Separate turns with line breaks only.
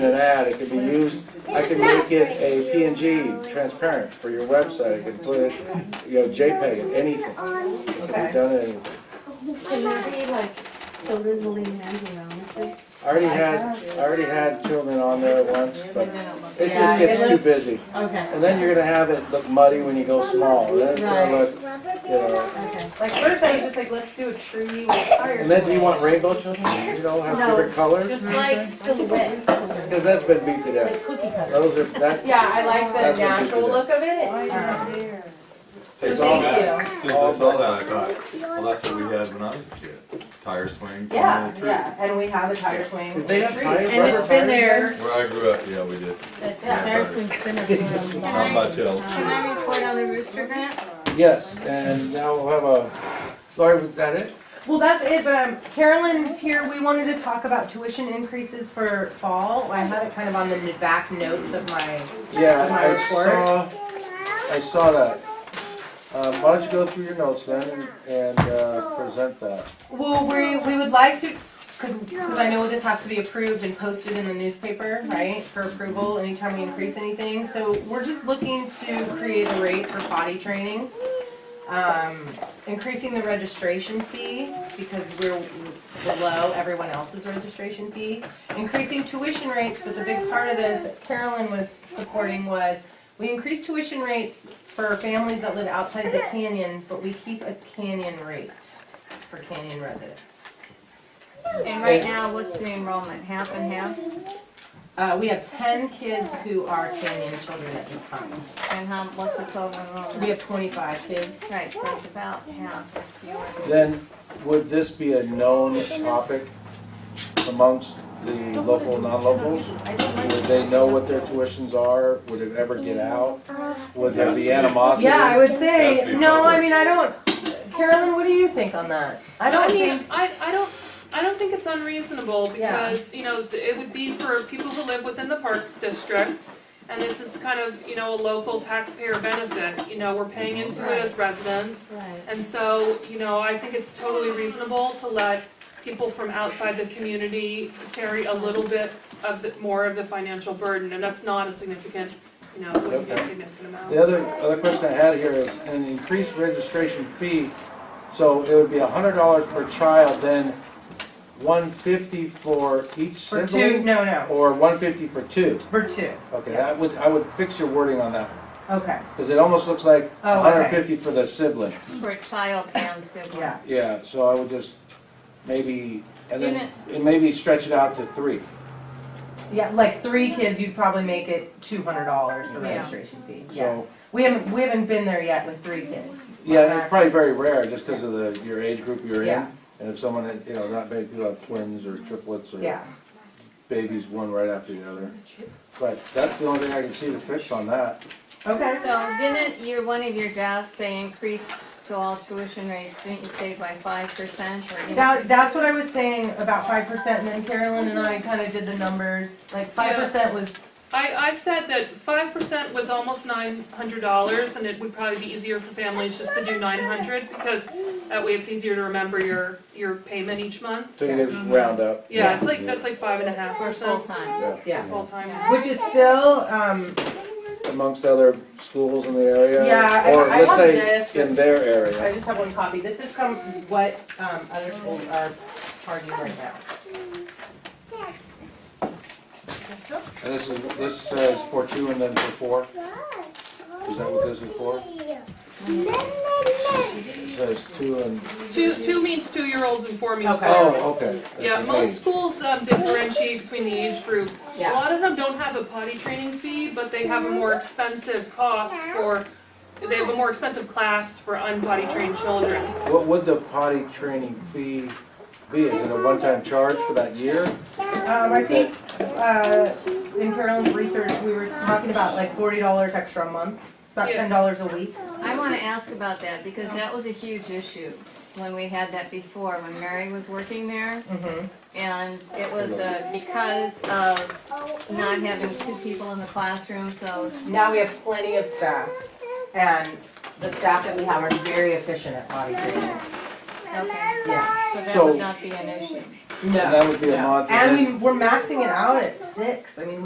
an ad, it could be used, I could make it a PNG transparent for your website, I could put it, you know, JPEG, anything. It could be done anything.
Can you be like so literally hand around with it?
I already had, I already had children on there once, but it just gets too busy.
Okay,
And then you're gonna have it look muddy when you go small, and then it's gonna look, you know.
okay.
Like first I was just like, let's do a tree with fire.
And then do you want rainbow children, you know, have different colors?
Just like
Silhouettes,
Because that's been beat to death.
like cookie cutter.
Those are, that,
Yeah, I like
That's
the
what we
natural
did.
look of it. Um,
Since
So thank
I
you.
saw that, I thought, well, that's what we had when I was a kid, tire swing. from a
Yeah,
little tree.
yeah, and we have a tire swing.
did they have
tree.
tires?
And it's been there.
Where I grew up, yeah, we did.
That Paris has been a
Can
real-
Not
I,
by tail.
can I report on the rooster grant?
Yes, and now we'll have a, Lori, was that it?
Well, that's it, but um, Carolyn's here, we wanted to talk about tuition increases for fall. I had it kind of on the back notes of my,
Yeah, I
My report.
saw, I saw that. Um, why don't you go through your notes then and, and, uh, present that?
well, we, we would like to, cause, 'cause I know this has to be approved and posted in the newspaper, right? For approval anytime we increase anything, so we're just looking to create a rate for potty training. um, increasing the registration fee because we're below everyone else's registration fee. Increasing tuition rates, but the big part of this that Carolyn was supporting was we increase tuition rates for families that live outside the canyon, but we keep a canyon rate for canyon residents.
And right now, what's the enrollment, half and half?
Uh, we have ten kids who are canyon children at this time.
And how, what's the total
We
enrollment?
have twenty-five kids.
Right, so it's about half.
Then, would this be a known topic amongst the local, non-locals? Would they know what their tuitions are? Would it ever get out? Would there be animosity?
Yeah, I would
Has to
say,
be
no, I
published.
mean, I don't, Carolyn, what do you think on that? I don't
I
think.
mean, I, I don't, I don't think it's unreasonable
Yeah.
because, you know, th- it would be for people who live within the Parks District. And this is kind of, you know, a local taxpayer benefit, you know, we're paying into it as residents.
Right.
And so, you know, I think it's totally reasonable to let people from outside the community carry a little bit of the, more of the financial burden. And that's not a significant, you know, wouldn't be a
Okay.
significant amount.
The other, other question I had here is an increased registration fee, so it would be a hundred dollars per child, then one fifty for each
For
sibling?
two, no, no,
Or one fifty for two?
for two,
Okay, I would, I would fix your wording on that,
okay,
because it almost looks like
Oh, okay.
hundred fifty for the sibling.
For child and sibling.
yeah.
Yeah, so I would just maybe, and then,
Didn't
and maybe stretch it out to three.
Yeah, like three kids, you'd probably make it two hundred dollars for
Yeah.
registration fee, yeah.
So,
We haven't, we haven't been there yet with three kids.
yeah, it's probably very rare, just because of the, your age group you're in.
Yeah.
And if someone, had- you know, not many people have twins or triplets or
Yeah,
babies one right after the other. But that's the only thing I can see to fix on that.
okay,
So didn't your, one of your drafts say increase to all tuition rates, didn't you say by five percent or?
that,
increase?
that's what I was saying about five percent, and then Carolyn and I kinda did the numbers, like five percent was,
I, I said that five percent was almost nine hundred dollars, and it would probably be easier for families just to do nine hundred, because that way it's easier to remember your, your payment each month.
So you can just round up.
Yeah, it's like, that's like five and a half
For
percent
full-time.
yeah,
full-time.
which is still, um,
Amongst other schools in the area.
Yeah, I-
Or
I
let's
want this.
say in their
I
area.
just have one copy, this is from what, um, other schools are charging right now.
And this is, this says for two and then for four. Is that what this is for? It says two and,
Two, two means two-year-olds and four means
Okay.
oh,
four-year-olds.
okay.
Yeah,
Okay.
most schools, um, differentiate between the age group. A
Yeah.
lot of them don't have a potty training fee, but they have a more expensive cost for, they have a more expensive class for unpotty trained children.
What would the potty training fee be? Is it a one-time charge for that year?
Um, I think, uh, in Carolyn's research, we were talking about like forty dollars extra a month, about
Yeah.
ten dollars a week.
I wanna ask about that, because that was a huge issue when we had that before, when Mary was working there.
Mm-hmm.
And it was uh, because of not having two people in the classroom, so
Now we have plenty of staff, and the staff that we have are very efficient at potty training.
okay,
Yeah.
so that
So-
would not be an issue.
And that
No.
would be a
no.
month.
And
then-
we, we're maxing it out at six, I mean,